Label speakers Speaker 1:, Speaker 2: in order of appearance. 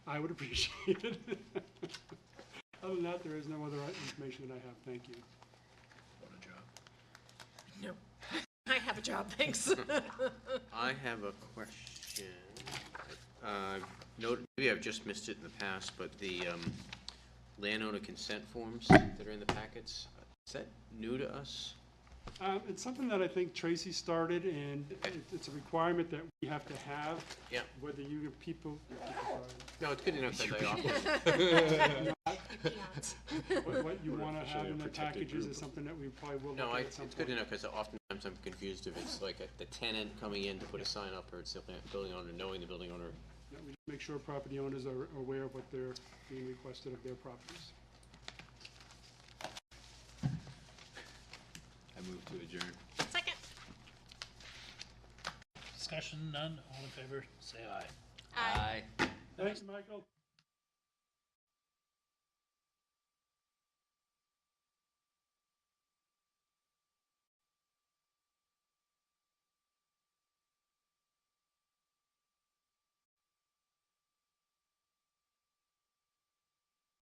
Speaker 1: I would appreciate it. Other than that, there is no other information that I have. Thank you.
Speaker 2: What a job.
Speaker 3: No. I have a job, thanks.
Speaker 4: I have a question. Uh, no- Maybe I've just missed it in the past, but the um, landowner consent forms that are in the packets, is that new to us?
Speaker 1: Um, It's something that I think Tracy started, and it- it's a requirement that we have to have.
Speaker 4: Yeah.
Speaker 1: Whether you have people,
Speaker 4: No, it's good enough that they offer.
Speaker 1: what what you
Speaker 2: We're
Speaker 1: want to have
Speaker 2: officially a
Speaker 1: in the
Speaker 2: protected
Speaker 1: packages
Speaker 2: group.
Speaker 1: is something that we probably will
Speaker 4: No,
Speaker 1: look
Speaker 4: I-
Speaker 1: at at some
Speaker 4: it's good
Speaker 1: point.
Speaker 4: enough because oftentimes I'm confused if it's like a- the tenant coming in to put a sign up or it's the building owner knowing the building owner.
Speaker 1: Yeah, we just Make sure property owners are aware of what they're being requested of their properties.
Speaker 2: I move to adjourn.
Speaker 3: Second.
Speaker 5: Discussion, none, all in favor, say aye.
Speaker 3: Aye.
Speaker 1: Thanks, Michael.